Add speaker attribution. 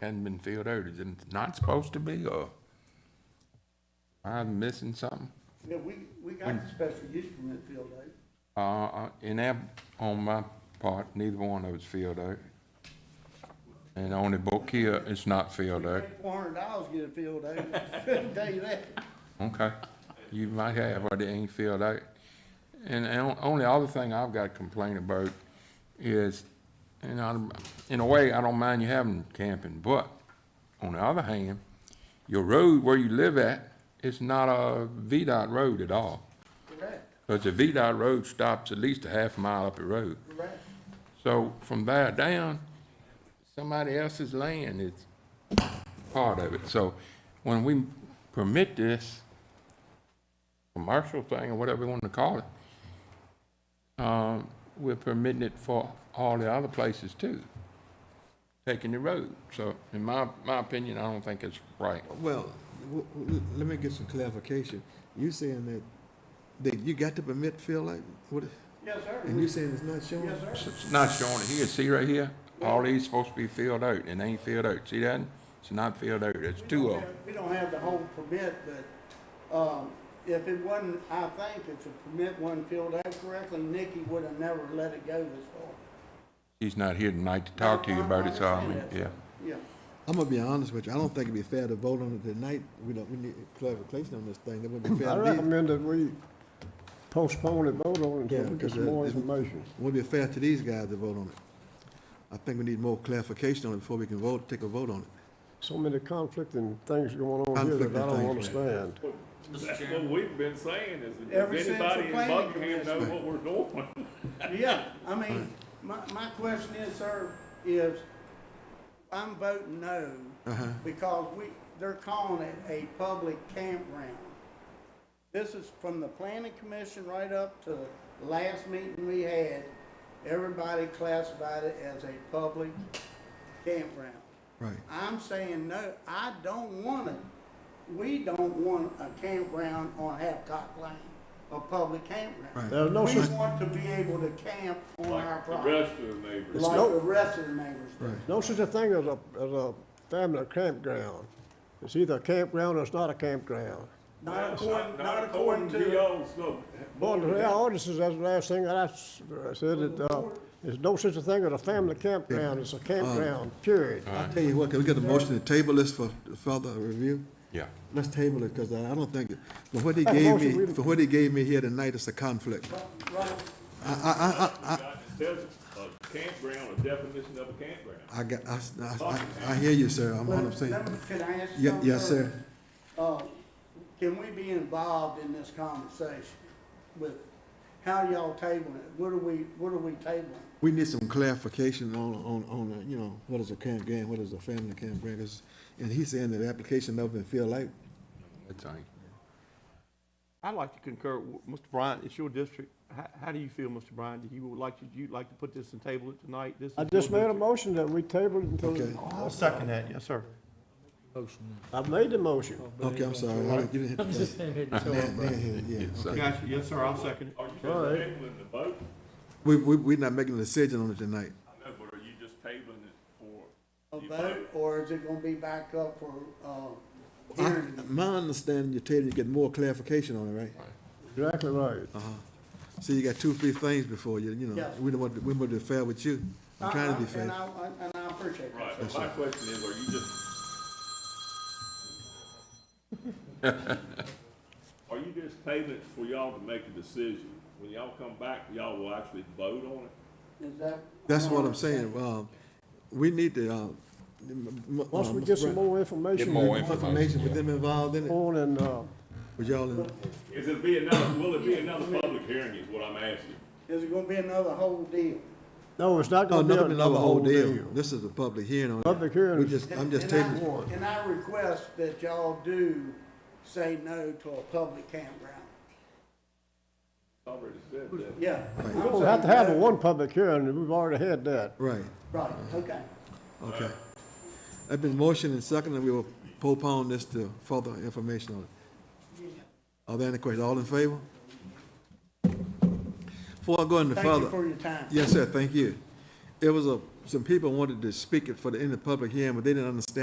Speaker 1: hadn't been filled out, is it not supposed to be, or I'm missing something?
Speaker 2: Yeah, we, we got the special use permit filled eh? out.
Speaker 1: Uh, Uh, in that, on my part, neither one of it's filled out. And on the book here, it's not filled out.
Speaker 2: Four hundred dollars get it filled out, tell you that.
Speaker 1: Okay, you might have, but it ain't filled out. And the on- only other thing I've got to complain about is, and I, in a way, I don't mind you having camping, but on the other hand, your road where you live at is not a VDOT road at all.
Speaker 2: Correct,
Speaker 1: Because the VDOT road stops at least a half mile up the road.
Speaker 2: correct.
Speaker 1: So from there down, somebody else's land is part of it. So when we permit this commercial thing or whatever we want to call it, um, we're permitting it for all the other places too, taking the road. So in my, my opinion, I don't think it's right.
Speaker 3: Well, w- w- let me get some clarification. You saying that, that you got the permit filled out, what,
Speaker 2: Yes, sir.
Speaker 3: and you saying it's not showing?
Speaker 2: Yes, sir.
Speaker 1: It's not showing it here. See right here? All these supposed to be filled out and they ain't filled out. See that? It's not filled out. It's two of them.
Speaker 2: We don't have the whole permit, but, um, if it wasn't, I think if the permit wasn't filled out correctly, Nikki would have never let it go this far.
Speaker 1: He's not here tonight to talk to you about it, so I mean, yeah.
Speaker 2: Yeah,
Speaker 3: I'm gonna be honest with you, I don't think it'd be fair to vote on it tonight. We don't, we need clarification on this thing, that wouldn't be
Speaker 4: I
Speaker 3: fair to these,
Speaker 4: recommend that we postpone the vote on it
Speaker 3: Yeah,
Speaker 4: until we get
Speaker 3: because, uh,
Speaker 4: some more
Speaker 3: it's-
Speaker 4: information.
Speaker 3: wouldn't be fair to these guys to vote on it. I think we need more clarification on it before we can vote, take a vote on it.
Speaker 4: So many conflicting things going on here that I don't
Speaker 3: Conflicting things,
Speaker 4: understand.
Speaker 5: That's what we've been saying, is
Speaker 2: Ever
Speaker 5: if
Speaker 2: since the
Speaker 5: anybody in
Speaker 2: planning
Speaker 5: Buckingham knows
Speaker 2: commission.
Speaker 5: what we're doing.
Speaker 2: yeah, I mean, my, my question is, sir, is, I'm voting no, because we, they're calling it a public campground. This is from the planning commission right up to the last meeting we had, everybody classified it as a public campground.
Speaker 3: Right.
Speaker 2: I'm saying, no, I don't want it. We don't want a campground on Hancock Lane, a public campground.
Speaker 3: Right.
Speaker 4: There's no
Speaker 2: We
Speaker 4: such,
Speaker 2: want to be able to camp on our
Speaker 5: Like the
Speaker 2: property,
Speaker 5: rest of the neighbors.
Speaker 2: like
Speaker 4: no-
Speaker 2: the rest of the neighbors do.
Speaker 4: no such a thing as a, as a family campground. It's either a campground or it's not a campground.
Speaker 2: Not
Speaker 5: That's
Speaker 2: according, not according to,
Speaker 5: y'all's, no.
Speaker 4: But the ordinances, that's the last thing that I s- I said, that, uh, there's no such a thing as a family campground,
Speaker 3: Uh-huh.
Speaker 4: it's a campground, period.
Speaker 3: I tell you what, can we get a motion to table this for further review?
Speaker 1: Yeah.
Speaker 3: Let's table it, cause I I don't think, for what he
Speaker 4: Have a
Speaker 3: gave
Speaker 4: motion,
Speaker 3: me,
Speaker 4: we-
Speaker 3: for what he gave me here tonight, it's a conflict.
Speaker 2: right,
Speaker 5: There's a campground, a definition of a campground.
Speaker 3: I got, I, s- I- I- I hear you, sir, I'm,
Speaker 2: let
Speaker 3: I'm
Speaker 2: me-
Speaker 3: saying,
Speaker 2: let me- can I ask you
Speaker 3: Ye-
Speaker 2: something?
Speaker 3: yes, sir.
Speaker 2: Uh, can we be involved in this conversation with how y'all tabling it? What are we, what are we tabling?
Speaker 3: We need some clarification on, on, on, uh, you know, what is a campground, what is a family campground, 'cause- and he's saying that the application never been filled out.
Speaker 1: That's all right.
Speaker 6: I'd like to concur, w- Mr. Bryant, it's your district. How, how do you feel, Mr. Bryant? Do you would like to, you'd like to put this and table it tonight? This
Speaker 4: I
Speaker 6: is
Speaker 4: just
Speaker 6: your
Speaker 4: made a
Speaker 6: district.
Speaker 4: motion that we table it
Speaker 3: Okay.
Speaker 4: until,
Speaker 6: I'll second that, yes, sir.
Speaker 4: I made the motion.
Speaker 3: Okay, I'm sorry, I didn't, you didn't hit the plug. Nan- Nan hit it, yeah, okay.
Speaker 6: Gotcha, yes, sir, I'll second it.
Speaker 5: Are you just
Speaker 4: All right.
Speaker 5: tabling the vote?
Speaker 3: We, we, we're not making a decision on it tonight.
Speaker 5: I know, but are you just tabling it for?
Speaker 2: a
Speaker 5: the
Speaker 2: vote, or is it gonna be back up for, uh,
Speaker 3: I-
Speaker 2: hearing?
Speaker 3: My understanding, you're telling, you get more clarification on it, right?
Speaker 4: Exactly right.
Speaker 3: Uh-huh. So you got two, three things before you, you know,
Speaker 2: Yes.
Speaker 3: we don't want, to- we want to be fair with you. I'm trying to be
Speaker 2: I- I- And
Speaker 3: fair.
Speaker 2: I, I- and I appreciate that.
Speaker 5: Right, but my question is, are you just? Are you just tabling it for y'all to make a decision? When y'all come back, y'all will actually vote on it?
Speaker 2: Is that?
Speaker 3: That's what I'm saying, um, we need to, uh. m- m-
Speaker 4: Once
Speaker 3: uh,
Speaker 4: we
Speaker 3: Mr.
Speaker 4: get some
Speaker 3: Brown,
Speaker 4: more information.
Speaker 1: more
Speaker 4: we'll
Speaker 1: info.
Speaker 3: Information with them involved in
Speaker 4: go
Speaker 3: it,
Speaker 4: On and, uh,
Speaker 3: with y'all in.
Speaker 5: Is it be another, will it be another public hearing is what I'm asking?
Speaker 2: Is it gonna be another whole deal?
Speaker 4: no, it's not
Speaker 3: Oh,
Speaker 4: gonna be
Speaker 3: nothing, another whole deal.
Speaker 4: deal.
Speaker 3: This is a public hearing on it.
Speaker 4: Public hearing.
Speaker 3: We just, I'm just
Speaker 2: And I-
Speaker 3: taking,
Speaker 2: And I request that y'all do say no to a public campground.
Speaker 5: Already said that.
Speaker 2: Yeah.
Speaker 3: Right.
Speaker 4: We don't have to have a one public hearing, we've already had that.
Speaker 3: right,
Speaker 2: Right, okay.
Speaker 3: okay. I've been motioned and seconded, we will postpone this to further information on it. Are there any questions? All in favor? Before I go any
Speaker 2: Thank you
Speaker 3: further,
Speaker 2: for your time.
Speaker 3: yes, sir, thank you. It was a some people wanted to speak it for the, in the public hearing, but they didn't understand